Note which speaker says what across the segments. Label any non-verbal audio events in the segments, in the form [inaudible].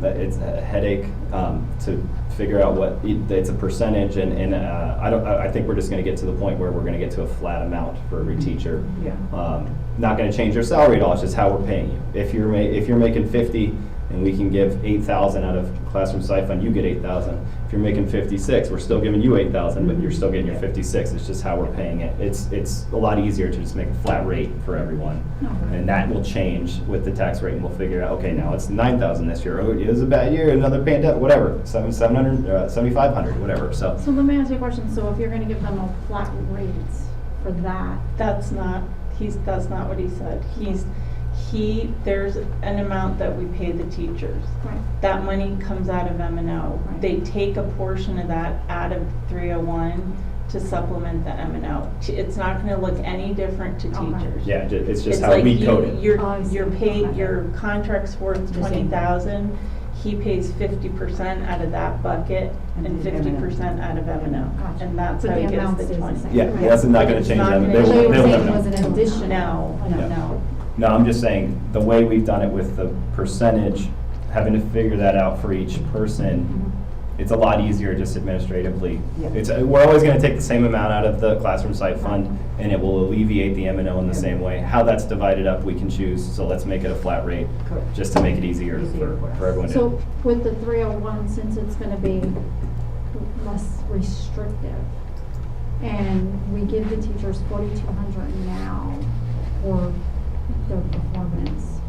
Speaker 1: that it's a headache um, to figure out what, it's a percentage, and, and uh, I don't, I I think we're just gonna get to the point where we're gonna get to a flat amount for every teacher.
Speaker 2: Yeah.
Speaker 1: Um, Not gonna change your salary at all, it's just how we're paying you. If you're ma, if you're making fifty, and we can give eight thousand out of classroom stipend, you get eight thousand. If you're making fifty-six, we're still giving you eight thousand, but you're still getting your fifty-six, it's just how we're paying it. It's, it's a lot easier to just make a flat rate for everyone. And that will change with the tax rate, and we'll figure out, okay, now it's nine thousand this year, oh, it was a bad year, another pandemic, whatever, seven, seven hundred, uh, seventy-five hundred, whatever, so.
Speaker 3: So let me ask you a question, so if you're gonna give them a flat rate for that,
Speaker 2: That's not, he's, that's not what he said. He's, he, there's an amount that we pay the teachers.
Speaker 3: right,
Speaker 2: That money comes out of M and O.
Speaker 3: Right.
Speaker 2: They take a portion of that out of three oh one to supplement the M and O. T- It's not gonna look any different to
Speaker 3: Okay.
Speaker 2: teachers.
Speaker 1: Yeah, ju- it's
Speaker 2: It's
Speaker 1: just how
Speaker 2: like
Speaker 1: we code
Speaker 2: you,
Speaker 1: it.
Speaker 3: Oh, I
Speaker 2: you're,
Speaker 3: see.
Speaker 2: you're paid, your contract's worth
Speaker 3: The same.
Speaker 2: twenty thousand. He pays fifty percent out of that bucket
Speaker 4: And
Speaker 2: and
Speaker 4: the M&O.
Speaker 2: fifty percent out of M and O.
Speaker 3: Gotcha.
Speaker 2: And that's
Speaker 3: But
Speaker 2: how
Speaker 3: the
Speaker 2: he
Speaker 3: amount
Speaker 2: gets the
Speaker 3: stays the
Speaker 2: twenty.
Speaker 3: same.
Speaker 1: Yeah, that's not gonna
Speaker 2: It's
Speaker 1: change
Speaker 2: not
Speaker 1: them, they
Speaker 2: gonna change.
Speaker 3: So
Speaker 1: will,
Speaker 3: you were
Speaker 1: they will
Speaker 3: saying
Speaker 1: never
Speaker 3: it
Speaker 1: know.
Speaker 3: was an addition?
Speaker 2: No,
Speaker 1: Yeah.
Speaker 3: no, no.
Speaker 1: No, I'm just saying, the way we've done it with the percentage, having to figure that out for each person, it's a lot easier just administratively.
Speaker 4: Yeah.
Speaker 1: It's, uh, we're always gonna take the same amount out of the classroom site fund, and it will alleviate the M and O in the same way. How that's divided up, we can choose, so let's make it a flat rate,
Speaker 4: Correct.
Speaker 1: just to make it easier for,
Speaker 4: Easier for us.
Speaker 1: for everyone. to-
Speaker 3: So with the three oh one, since it's gonna be less restrictive, and we give the teachers forty-two hundred now for their performance,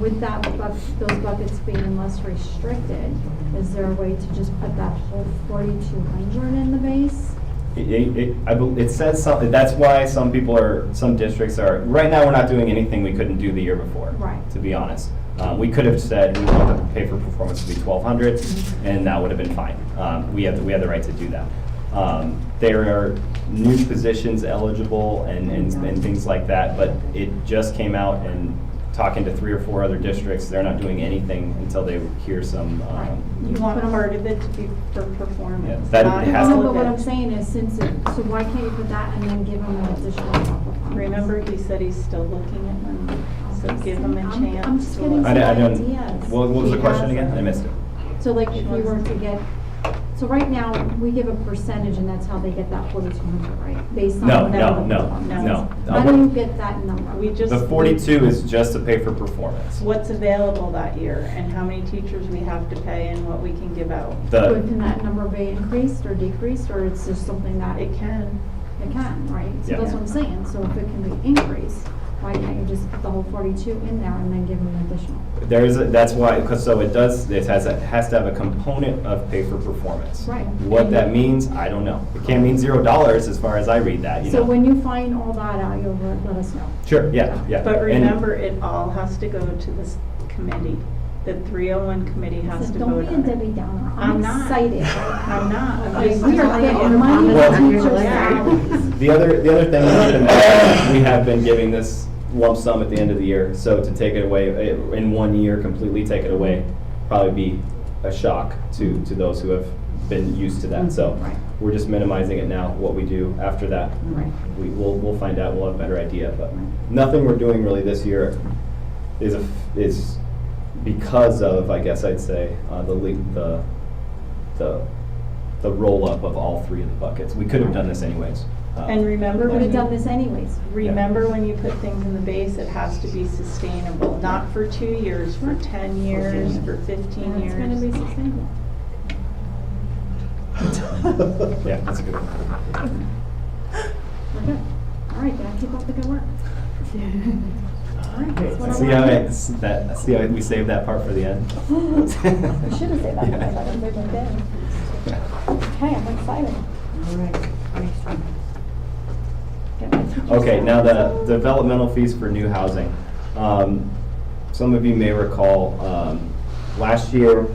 Speaker 3: with that, buc- those buckets being less restricted, is there a way to just put that whole forty-two hundred in the base?
Speaker 1: It, it- it, I, bel- it says something, that's why some people are, some districts are, right now, we're not doing anything we couldn't do the year before.
Speaker 3: Right.
Speaker 1: To be honest. Um, we could have said, we want the pay for performance to be twelve hundred,
Speaker 3: Mm-hmm.
Speaker 1: and that would have been fine. Um, we have, we had the right to do that. Um, there are new positions eligible and, and, and things like that, but it just came out and talking to three or four other districts, they're not doing anything until they hear some, um,
Speaker 2: You want part of it to be for performance.
Speaker 1: Yeah, that
Speaker 2: not
Speaker 1: has-
Speaker 2: all
Speaker 3: No,
Speaker 2: of
Speaker 3: but what
Speaker 2: it.
Speaker 3: I'm saying is since it, so why can't you put that and then give them an additional couple of months?
Speaker 2: Remember, he said he's still looking at money, so give him a
Speaker 3: I'm- I'm
Speaker 2: chance.
Speaker 3: just
Speaker 2: to
Speaker 3: getting
Speaker 2: look.
Speaker 1: I, don't- I don't,
Speaker 3: Ideas.
Speaker 1: what what was the
Speaker 3: She
Speaker 1: question
Speaker 3: has-
Speaker 1: again? I missed it.
Speaker 3: So like if we were to get, so right now, we give a percentage and that's how they get that forty-two hundred, right? Based on
Speaker 1: No,
Speaker 3: whatever
Speaker 1: no, no,
Speaker 3: performance.
Speaker 2: no.
Speaker 3: How
Speaker 1: Uh,
Speaker 3: do you get that number?
Speaker 2: We just.
Speaker 1: The forty-two is just to pay for performance.
Speaker 2: What's available that year and how many teachers we have to pay and what we can give out.
Speaker 3: Would-
Speaker 1: The,
Speaker 3: Can that number be increased or decreased, or it's just something that
Speaker 2: It
Speaker 3: it
Speaker 2: can.
Speaker 3: it can, right? So
Speaker 1: Yeah.
Speaker 3: that's what I'm saying, so if it can be increased, why can't you just put the whole forty-two in there and then give them an additional?
Speaker 1: there is, a- that's why, because so it does, it has, it has to have a component of pay for performance.
Speaker 3: Right.
Speaker 1: What that means, I don't know. It can't mean zero dollars as far as I read that, you
Speaker 3: So
Speaker 1: know.
Speaker 3: when you find all that out, you'll let let us know.
Speaker 1: Sure, yeah, yeah.
Speaker 2: But
Speaker 1: And-
Speaker 2: remember, it all has to go to this committee. The 301 committee has
Speaker 3: So
Speaker 2: to
Speaker 3: Don't
Speaker 2: vote
Speaker 3: be a
Speaker 2: on it.
Speaker 3: Debbie Downer,
Speaker 2: I'm
Speaker 3: I'm
Speaker 2: not.
Speaker 3: excited.
Speaker 2: I'm not. [laughs] I'm
Speaker 3: Like,
Speaker 2: just-
Speaker 3: We are getting money
Speaker 1: Well-
Speaker 3: to teachers'
Speaker 2: Yeah.
Speaker 3: salaries.
Speaker 1: The other, the other thing, is that we have been giving this lump sum at the end of the year, so to take it away, eh, in one year, completely take it away, probably be a shock to, to those who have been used to that, so.
Speaker 3: Mm, Right.
Speaker 1: We're just minimizing it now, what we do after that.
Speaker 3: Right.
Speaker 1: We, we'll, we'll find out, we'll have a better idea, but nothing we're doing really this year is, a- is because of, I guess I'd say, uh, the le the, the, the roll-up of all three of the buckets. We could have done this anyways. Uh,
Speaker 2: And remember
Speaker 3: We would
Speaker 2: when
Speaker 3: have done
Speaker 2: you,
Speaker 3: this anyways.
Speaker 2: remember when you put things in the base, it has to be sustainable, not for two years, for 10 years, for 15
Speaker 3: And
Speaker 2: years.
Speaker 3: It's gonna be sustainable.
Speaker 1: [laughs] Yeah, that's a good one.
Speaker 3: We're good. All right, then, keep up the good work. All right, that's what I
Speaker 1: See how
Speaker 3: wanted.
Speaker 1: I, that, see how we saved that part for the end?
Speaker 3: We should have said that,
Speaker 1: Yeah.
Speaker 3: because [laughs] I didn't bring my pen. Okay, I'm excited.
Speaker 4: All right, next one.
Speaker 3: Get my teacher's
Speaker 1: Okay, now the
Speaker 3: salaries.
Speaker 1: developmental fees for new housing. Um, Some of you may recall, um, last year,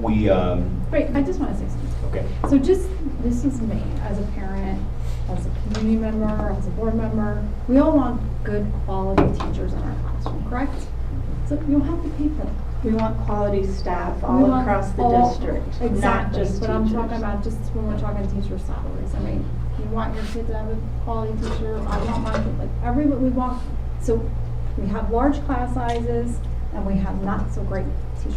Speaker 1: we, um,
Speaker 3: Wait, I just wanna say something.
Speaker 1: okay,
Speaker 3: So just, this is me, as a parent, as a community member, as a board member, we all want good quality teachers in our classroom, correct? So you'll have to pay for that.
Speaker 2: We want quality staff
Speaker 3: We
Speaker 2: all
Speaker 3: want
Speaker 2: across the
Speaker 3: all-
Speaker 2: district, not just teachers.
Speaker 3: Exactly, but I'm talking about just when we're talking teacher salaries, I mean, you want your kid to have a quality teacher, I want my kid, like, every, we want, so we have large class sizes and we have not so great teachers.